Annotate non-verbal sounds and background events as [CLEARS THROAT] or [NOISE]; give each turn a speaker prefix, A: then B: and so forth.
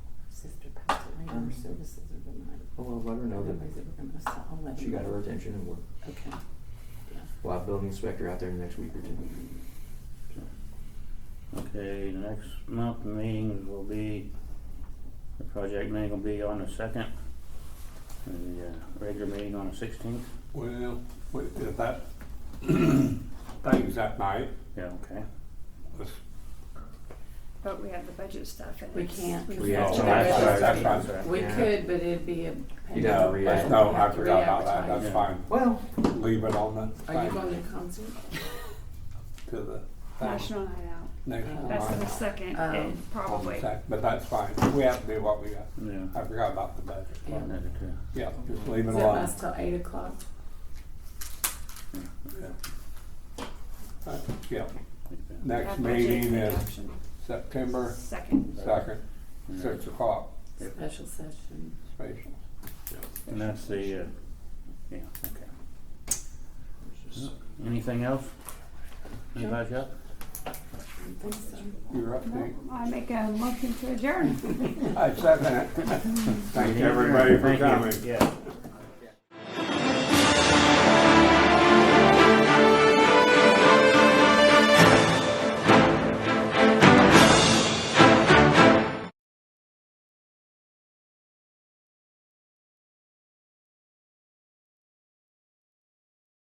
A: her services are denied.
B: Oh, well, let her Mm. know that
A: Otherwise, they were gonna sell, I'll let
B: she
A: you
B: got
A: know.
B: her attention and we're,
A: Okay, yeah.
B: we'll have building inspector out there in the next week or two.
C: Okay, next month meetings will be, the project meeting will be on the second, and the uh, regular meeting on the sixteenth.
D: Well, wait, if that [CLEARS THROAT] thing's that night,
C: Yeah, okay.
D: let's-
E: But we have the budget stuff and
A: We
E: it's-
A: can't.
E: we've
B: We
E: got
B: have
E: to
B: to-
E: do
D: that's
E: it.
D: right, that's right.
A: We
B: Yeah.
A: could, but it'd be a.
B: You'd have to Oh,
D: No,
B: re- re-advertise.
D: that's- No, I forgot about that,
A: Re-advertise.
D: that's fine.
B: Well,
D: Leave it on the
A: Are you
D: thing,
A: going to a concert?
D: to the thing,
E: National Night Out.
D: next
A: That's
D: one.
E: That's
D: on-
E: the second
A: Um,
E: and
D: on
E: probably.
D: the sec- But that's fine, we have to do what we got.
C: Yeah.
D: I forgot about the budget.
A: Yeah.
C: Another two.
D: Yeah, just leave it
A: Does that
D: alone.
A: last till eight o'clock?
D: Uh, Yeah,
C: Okay.
D: next
E: Have budget
D: meeting is
E: reduction.
D: September
E: Second.
D: second, six o'clock,
C: Yep.
A: Special session.
D: special.
C: And that's the, uh, yeah, okay. Anything else? Anybody else?
A: I think so.
D: You're up, Nick.
E: I make a motion to adjourn.
D: I second it. Thank everybody for
C: Thank you.
D: coming.
C: Yeah.